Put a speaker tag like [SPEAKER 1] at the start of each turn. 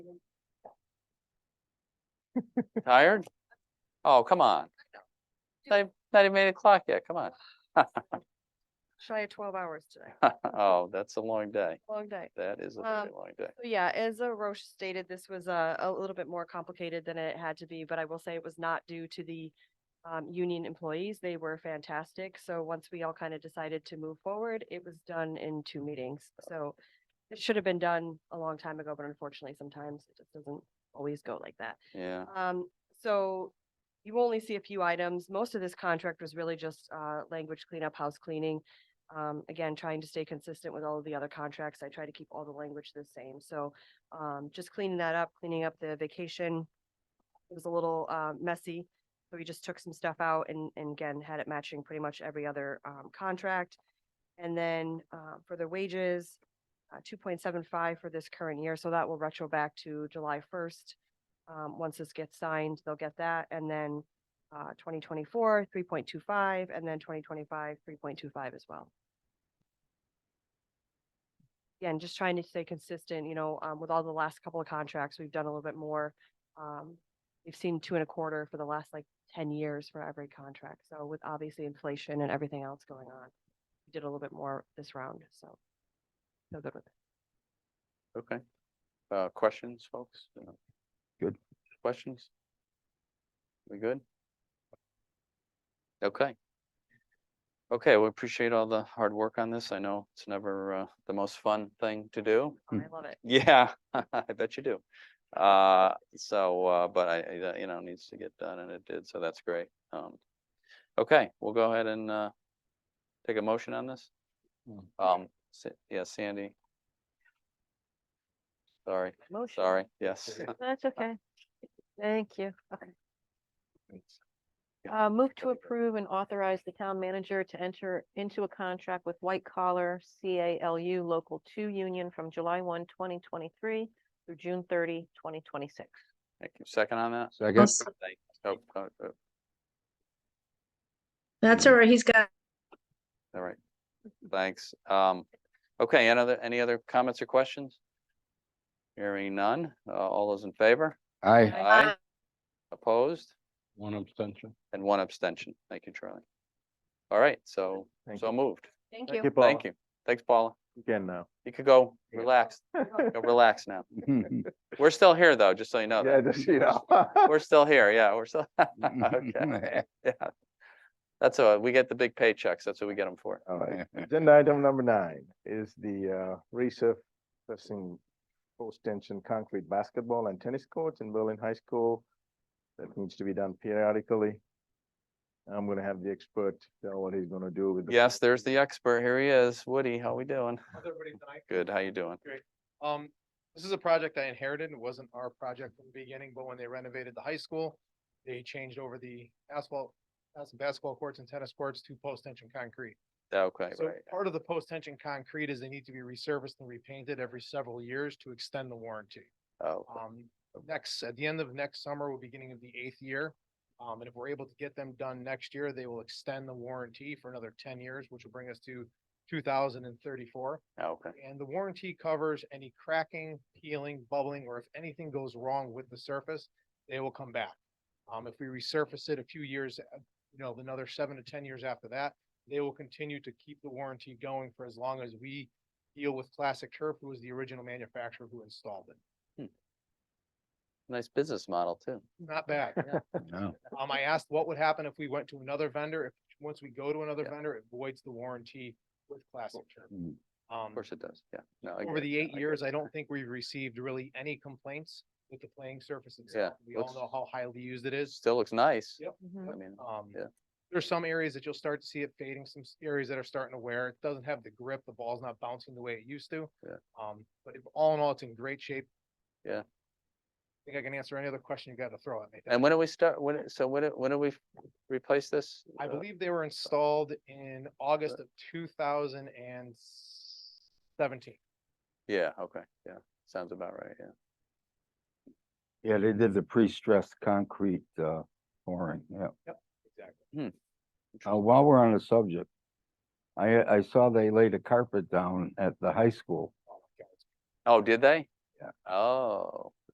[SPEAKER 1] Tired? Oh, come on. Not even- not even eight o'clock yet, come on.
[SPEAKER 2] Shy of twelve hours today,
[SPEAKER 1] Oh, that's a long day.
[SPEAKER 2] long day.
[SPEAKER 1] That is a
[SPEAKER 2] Um,
[SPEAKER 1] very long day.
[SPEAKER 2] So Yeah, as uh, Roche stated, this was uh, a little bit more complicated than it had to be, but I will say it was not due to the um, union employees. They were fantastic. So once we all kind of decided to move forward, it was done in two meetings. So it should have been done a long time ago, but unfortunately, sometimes it just doesn't always go like that.
[SPEAKER 1] Yeah,
[SPEAKER 2] Um, so you only see a few items. Most of this contract was really just, uh, language cleanup, house cleaning. Um, again, trying to stay consistent with all of the other contracts. I try to keep all the language the same. So, um, just cleaning that up, cleaning up the vacation. It was a little, uh, messy. So we just took some stuff out and, and again, had it matching pretty much every other, um, contract. And then, uh, for the wages, uh, two point seven five for this current year. So that will retro back to July first. Um, once this gets signed, they'll get that, and then, uh, twenty twenty-four, three point two five, and then twenty twenty-five, three point two five as well. Again, just trying to stay consistent, you know, um, with all the last couple of contracts, we've done a little bit more. Um, we've seen two and a quarter for the last like ten years for every contract, so with obviously inflation and everything else going on. We did a little bit more this round, so. Feel good with it.
[SPEAKER 1] okay. Uh, questions, folks? No.
[SPEAKER 3] Good.
[SPEAKER 1] Questions? We good? Okay. Okay, we appreciate all the hard work on this. I know it's never, uh, the most fun thing to do.
[SPEAKER 2] I love it.
[SPEAKER 1] Yeah, I bet you do. Uh, so, uh, but I, I- that, you know, needs to get done and it did, so that's great. Um, okay, we'll go ahead and, uh, take a motion on this.
[SPEAKER 3] Mm.
[SPEAKER 1] Um, Sa- yeah, Sandy. Sorry,
[SPEAKER 2] Motion.
[SPEAKER 1] sorry, yes.
[SPEAKER 4] That's okay. Thank you. Okay.
[SPEAKER 1] Yeah.
[SPEAKER 4] Uh, move to approve and authorize the town manager to enter into a contract with White Collar CALU Local Two Union from July 1, 2023, through June 30, 2026.
[SPEAKER 1] Thank you. Second on that?
[SPEAKER 3] Second,
[SPEAKER 1] Thank- Oh, oh, oh,
[SPEAKER 5] That's all right. He's got
[SPEAKER 1] all right. Thanks. Um, okay, any other, any other comments or questions? Hearing none. Uh, all those in favor?
[SPEAKER 3] aye.
[SPEAKER 1] Aye. Opposed?
[SPEAKER 3] One abstention.
[SPEAKER 1] And one abstention. Thank you, Charlie. All right, so,
[SPEAKER 6] Thank
[SPEAKER 1] so moved.
[SPEAKER 2] Thank
[SPEAKER 6] Thank
[SPEAKER 2] you.
[SPEAKER 6] you, Paula.
[SPEAKER 1] Thank you. Thanks, Paula.
[SPEAKER 6] You can now.
[SPEAKER 1] You could go
[SPEAKER 6] Yeah.
[SPEAKER 1] relax, Go relax now.
[SPEAKER 3] Mhm.
[SPEAKER 1] We're still here, though, just so you know.
[SPEAKER 6] Yeah,
[SPEAKER 1] that.
[SPEAKER 6] just, you know.
[SPEAKER 1] We're still here, yeah, we're still, okay, yeah. That's all, we get the big paychecks, that's what we get them for.
[SPEAKER 6] All right. Agenda item number nine is the uh, resurfacing post-tension concrete basketball and tennis courts in Berlin High School. That needs to be done periodically. I'm gonna have the expert tell what he's gonna do with. the-
[SPEAKER 1] Yes, there's the expert, here he is, Woody, how we doing?
[SPEAKER 7] How's everybody tonight?
[SPEAKER 1] Good, how you doing?
[SPEAKER 7] Um, this is a project I inherited. It wasn't our project from the beginning, but when they renovated the high school, they changed over the asphalt, as- basketball courts and tennis courts to post-tension concrete.
[SPEAKER 1] Okay,
[SPEAKER 7] So
[SPEAKER 1] right,
[SPEAKER 7] part of the post-tension concrete is they need to be resurfaced and repainted every several years to extend the warranty.
[SPEAKER 1] oh,
[SPEAKER 7] Um, next, at the end of next summer, we'll beginning of the eighth year. Um, and if we're able to get them done next year, they will extend the warranty for another ten years, which will bring us to two thousand and thirty-four.
[SPEAKER 1] okay,
[SPEAKER 7] And the warranty covers any cracking, peeling, bubbling, or if anything goes wrong with the surface, they will come back. Um, if we resurface it a few years, uh, you know, another seven to ten years after that, they will continue to keep the warranty going for as long as we deal with Classic Turf, who was the original manufacturer who installed it.
[SPEAKER 1] nice business model, too.
[SPEAKER 7] Not bad.
[SPEAKER 3] No.
[SPEAKER 7] Um, I asked what would happen if we went to another vendor. If, once we go to another
[SPEAKER 1] Yeah.
[SPEAKER 7] vendor, it voids the warranty with Classic Turf.
[SPEAKER 3] Mm.
[SPEAKER 1] Of
[SPEAKER 7] Um,
[SPEAKER 1] course it does, yeah. No, I
[SPEAKER 7] over
[SPEAKER 1] get it,
[SPEAKER 7] the
[SPEAKER 1] no,
[SPEAKER 7] eight
[SPEAKER 1] I get
[SPEAKER 7] years,
[SPEAKER 1] it.
[SPEAKER 7] I don't think we've received really any complaints with the playing surface
[SPEAKER 1] Yeah,
[SPEAKER 7] itself. We all
[SPEAKER 1] looks-
[SPEAKER 7] know how highly used it is.
[SPEAKER 1] Still looks nice.
[SPEAKER 7] Yep.
[SPEAKER 1] I mean,
[SPEAKER 7] Um,
[SPEAKER 1] Yeah.
[SPEAKER 7] there's some areas that you'll start to see it fading, some s- areas that are starting to wear. It doesn't have the grip, the ball's not bouncing the way it used to.
[SPEAKER 1] Yeah.
[SPEAKER 7] Um, but if- all in all, it's in great shape.
[SPEAKER 1] Yeah.
[SPEAKER 7] I Think I can answer any other question you got to throw at me.
[SPEAKER 1] and when do we start, when, so when, do- when do we f- replace this?
[SPEAKER 7] I
[SPEAKER 1] Uh,
[SPEAKER 7] believe they were installed in August of two thousand and seventeen.
[SPEAKER 1] Yeah, okay, yeah, sounds about right, yeah.
[SPEAKER 3] Yeah, they did the pre-stressed concrete uh, pouring, yeah. Hmm.
[SPEAKER 7] Exactly.
[SPEAKER 3] Uh, While we're on the subject, I, I saw they laid a carpet down at the high school.
[SPEAKER 7] Oh my God, it's
[SPEAKER 1] Oh, did they?
[SPEAKER 3] Yeah.
[SPEAKER 1] Oh,